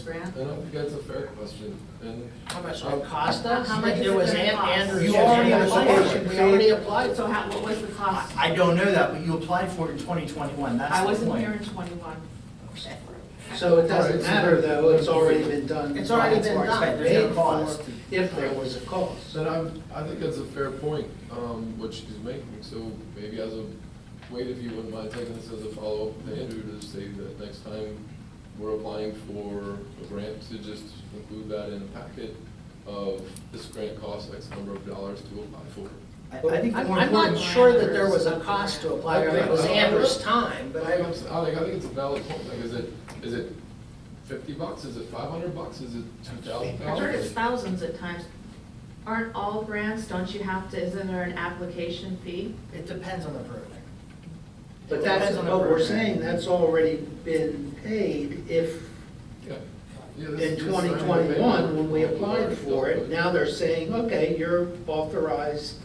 grant? Uh, I don't think that's a fair question, and How much will it cost us? How much It is it was gonna An- cost? Andrews. You said already we applied. applied. We already applied. So how, what was the cost? I don't know that, but you applied for it in 2021, that's I the wasn't here point. in twenty-one. So it All doesn't right, so matter there- though, it's already been done. It's already by its been marks, done. paid There's no for, cost. If there was a cost. then I'm, I think that's a fair point, um, what she's making, so maybe as a, wait, if you wouldn't mind taking this as a follow-up to Andrew, to say that next time we're applying for a grant, to just include that in a packet of this grant costs X number of dollars to apply for. I I think the I'm more I'm not important- sure that there was a cost to apply, or it was Okay. Andrew's time, but But I, I, I'm s- I think, I think it's a valid point, like, is it, is it fifty bucks, is it five hundred bucks, is it two thousand I've heard it's dollars? thousands at times. Aren't all grants, don't you have to, isn't there an application fee? It depends on the program. but that's, Depends on the but we're program. saying that's already been paid if, Yeah. Yeah, this- in this time we made 2021, when we it, applied for it, now they're saying, okay, you're authorized.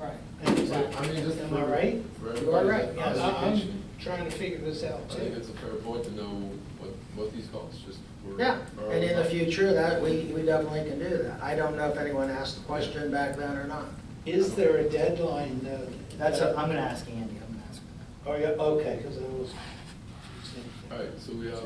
Right. So, I mean, just. Am I for- right? For You are right, everybody's Yes. education, Trying to figure this out I think it's a fair point to know what, what these costs just were. Um, Yeah, are and in the about. future, that, we, we definitely can do that. I don't know if anyone asked the question back then or not. Is there a deadline though? That's, a- I'm gonna ask Andy, I'm gonna ask him. Oh, yeah, okay, because I was. All right, so we have,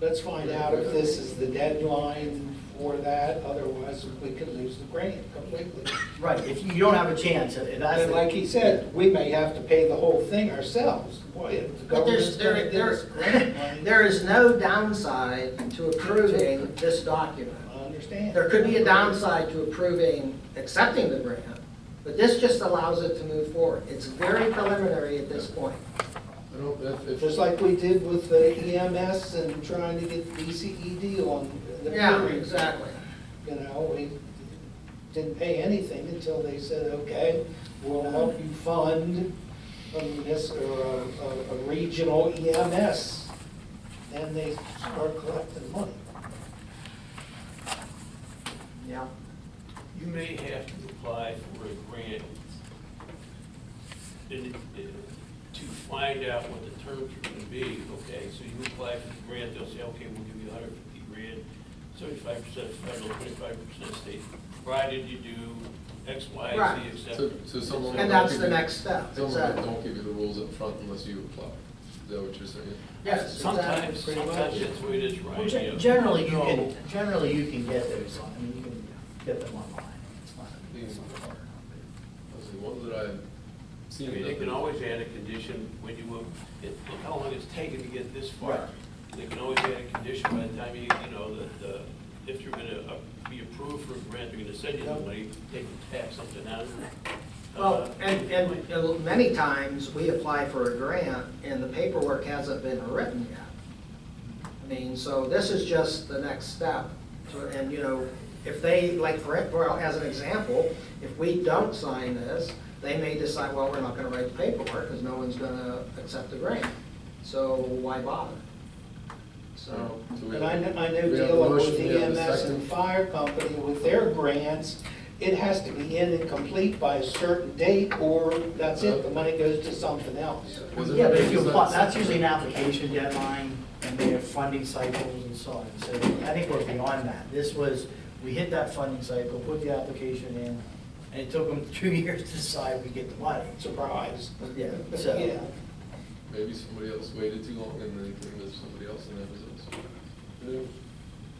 Let's find out if this is the deadline for that, otherwise we could lose the grant completely. Right, if you don't have a chance, if that's. And like he said, we may have to pay the whole thing ourselves. Boy, if the But government's there's, gonna there, give us grant there, money. there is no downside to approving this document. I understand. There could be a downside to approving, accepting the grant, but this just allows it to move forward. It's very preliminary at this point. I don't, if, Just if, like we did with the EMS and trying to get E DCED on the Yeah, hearing. exactly. You know, we didn't pay anything until they said, okay, we'll help you fund a munis, or a, a- a regional EMS. Then they start collecting money. Yeah. You may have to apply for a grant in- to find out what the terms are gonna be, okay? So you apply for the grant, they'll say, okay, we'll give you hundred fifty grand, seventy-five percent federal, twenty-five percent state, provided you do X, Y, Right. so, Z, et cetera. so someone. And will that's give the you- next step, Someone exactly. will don't give you the rules up front unless you apply, is that what you're saying? Yes, exactly. Sometimes, Pretty much. sometimes that's the way it is, right? Well, You know, gen- Generally, you no. can, generally, you can get those, on- I mean, you can get them online. It's not- it's not hard. Those are the ones that I've I seen. mean, they can always add a condition when you, will- it- look how long it's taken to get this far. They can always add a condition by the time you, you know, that, uh, if you're gonna uh, be approved for a grant, they're gonna send you the money, they can tap something out. of it. Well, Uh, and, and and many times, we apply for a grant, and the paperwork hasn't been written yet. I mean, so this is just the next step, to- and, you know, if they, like, for, well, as an example, if we don't sign this, they may decide, well, we're not gonna write the paperwork, because no one's gonna accept the grant, so why bother? So, And I know, I know dealing with EMS and fire company with their grants, it has to be in and complete by a certain date, or that's it, the money goes to something else. Yeah, but if you apply, that's usually an application deadline, and they have funding cycles and so on. So I think we're beyond that. This was, we hit that funding cycle, put the application in, and it took them two years to decide we get the money. Surprise. Yeah, Yeah. so, Maybe somebody else waited too long and then convinced somebody else and that was us. Yeah.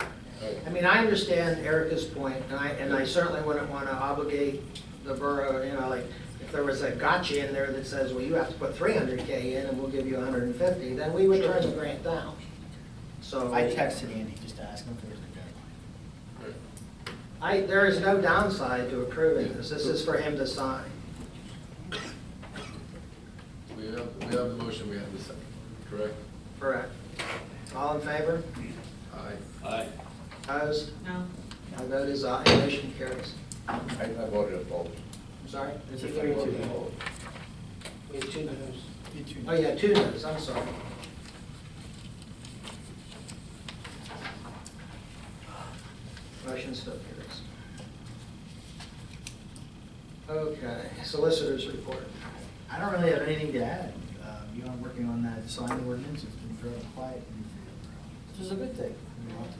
All right. I mean, I understand Erica's point, and I, and I certainly wouldn't want to obligate the borough, you know, like, if there was a gotcha in there that says, well, you have to put three hundred K in and we'll give you hundred and fifty, then we would turn the grant down. So. I texted Andy just to ask him if there was a deadline. All right. I, there is no downside to approving this, this is for him to sign. We have, we have the motion, we have the second, correct? Correct. All in favor? Aye. Aye. Opposed? No. My vote is aye, motion carries. I I voted opposed. I'm sorry? It's a three, two. We had two no's. Oh, yeah, two noes, I'm sorry. Motion still carries. Okay, solicitors report. I don't really have anything to add. Uh, You know, I'm working on that sign ordinance, it's been very quiet, and, uh, which is a good thing. I mean, I'll have to